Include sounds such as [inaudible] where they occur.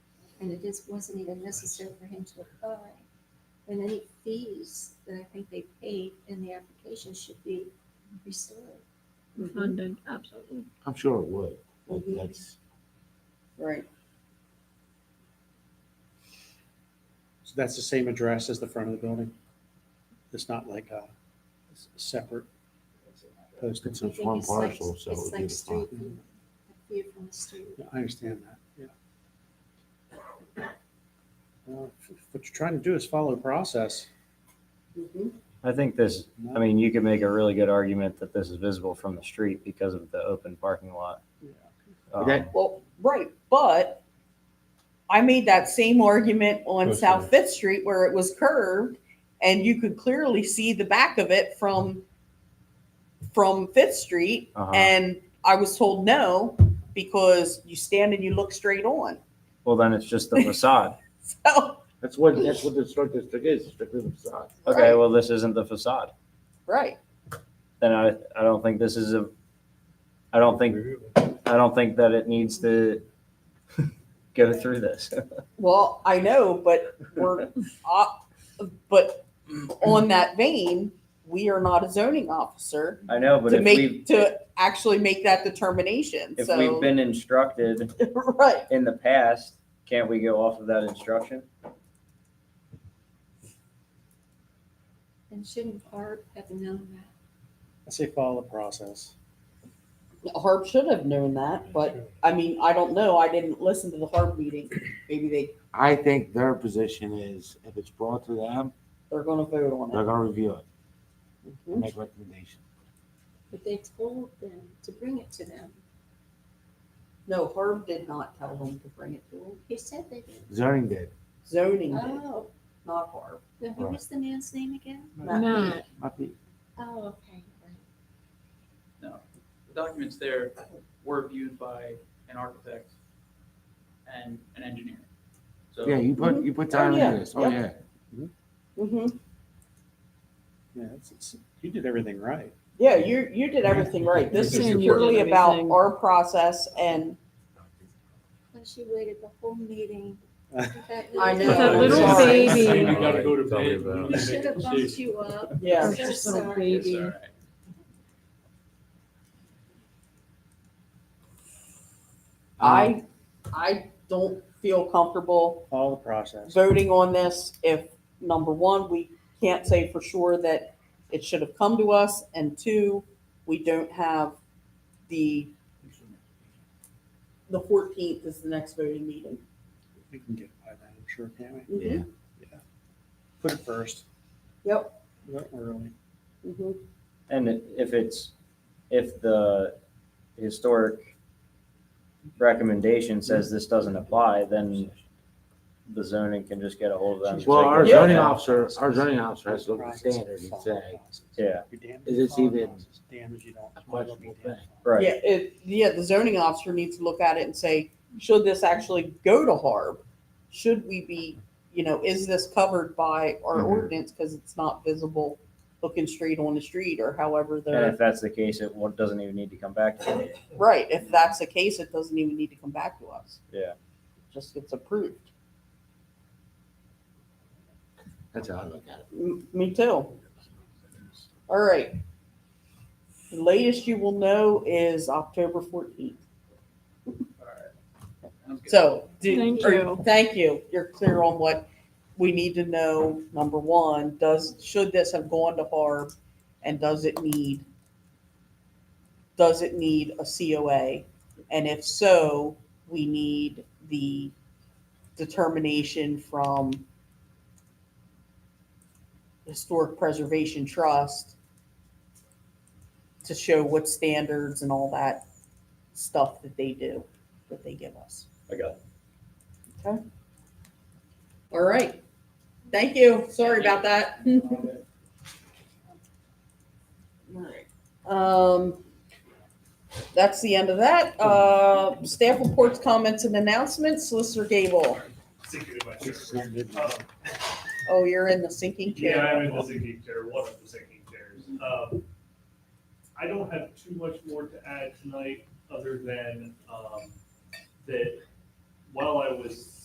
and it just wasn't even necessary for him to apply. And any fees that I think they paid in the application should be restored. Funded, absolutely. I'm sure it would. That- Mhm. That's, Right. So that's the same address as the front of the building? It's not like a s- separate posted? It's one I think like- parcel, so it It's would be like the street, front. view, a view from the street. Yeah, I understand that, yeah. Well, f- What you're trying to do is follow the process. Mhm. I think this, I mean, you could make a really good argument that this is visible from the street because of the open parking lot. Yeah. Um, Okay. Well, right, but I made that same argument on Okay. South Fifth Street where it was curved and you could clearly see the back of it from, from Fifth Street. Uh-huh. And I was told no, because you stand and you look straight on. [laughs] Well, then it's just the facade. So, that's what, that's what the historic district is, strictly the facade. Okay, well, this isn't the facade. right. Then I, I don't think this is a, I don't think, I don't think that it needs to [laughs] go through this. Well, I know, but we're, uh, but on that vein, we are not a zoning officer I know, but to if we've, make, to actually make that determination. if we've So, been instructed [laughs] right. in the past, can't we go off of that instruction? And shouldn't Barb have known that? I say follow the process. Harb should have known that, but I mean, I don't know. I didn't listen to the Harb meeting. Maybe they, I think their position is if it's brought to them, they're gonna vote on they're gonna review it, and it. make recommendations. But they told them to bring it to them. No, Harb did not tell them Ah. to bring it to him. He said they did. Zoning did, Zoning did, Oh, not Harb. now who was the man's name again? Matt. Matt, not the, Oh, okay. right. No, the documents there were viewed by an architect and an engineer. So yeah, you put, you put time yeah, into this, oh, yep. yeah. Mhm. Yeah, it's, it's, you did everything right. Yeah, you, you did everything right. This is Sam, you did purely about everything. our process and Well, she waited the whole [laughs] meeting. That I little- know. [laughs] That little Sorry. baby. Saying you gotta go to Tell me bed. about You We it. should have bumped you up. Yeah. I'm or so just little sorry. It's all baby. right. Um, I, I don't feel comfortable Follow the process. voting on this if, number one, we can't say for sure that it should have come to us, and two, we don't have the, the fourteenth is the next voting meeting. We can get by that, I'm sure, can't we? Mhm, Put it first. Yep. Not early. mhm. And it- if it's, if the historic recommendation says this doesn't apply, then the zoning can just get a hold of them. and Well, take our it zoning down. officer, our zoning officer has to look at the standard and say, Yeah. is this even Damage you don't. questionable thing? Right. Yeah, it, yeah, the zoning officer needs to look at it and say, should this actually go to Harb? Should we be, you know, is this covered by our Mhm. ordinance, because it's not visible looking straight on the street, or however And they're. if that's the case, it won't- doesn't even need to come back to you. Right, if that's the case, it doesn't even need to come back to us. Yeah. Just gets approved. That's how I look at it. M- Me too. All right. The latest you will know is October fourteenth. All right. Sounds good. So, do- Thank are- you. Thank you. You're clear on what we need to know. Number one, does, should this have gone to Harb? And does it need, does it need a COA? And if so, we need the determination from Historic Preservation Trust to show what standards and all that stuff that they do, that they give us. I got All right. Thank you. Sorry about that. All right. Um, that's the end of that. Uh, staff reports, comments and announcements. Solicitor Gable. Thinking about It's your- not good. Um, Oh, you're in the sinking Yeah, chair. I'm in the sinking chair, one of the sinking chairs. Um, I don't have too much more to add tonight, other than, um, that while I was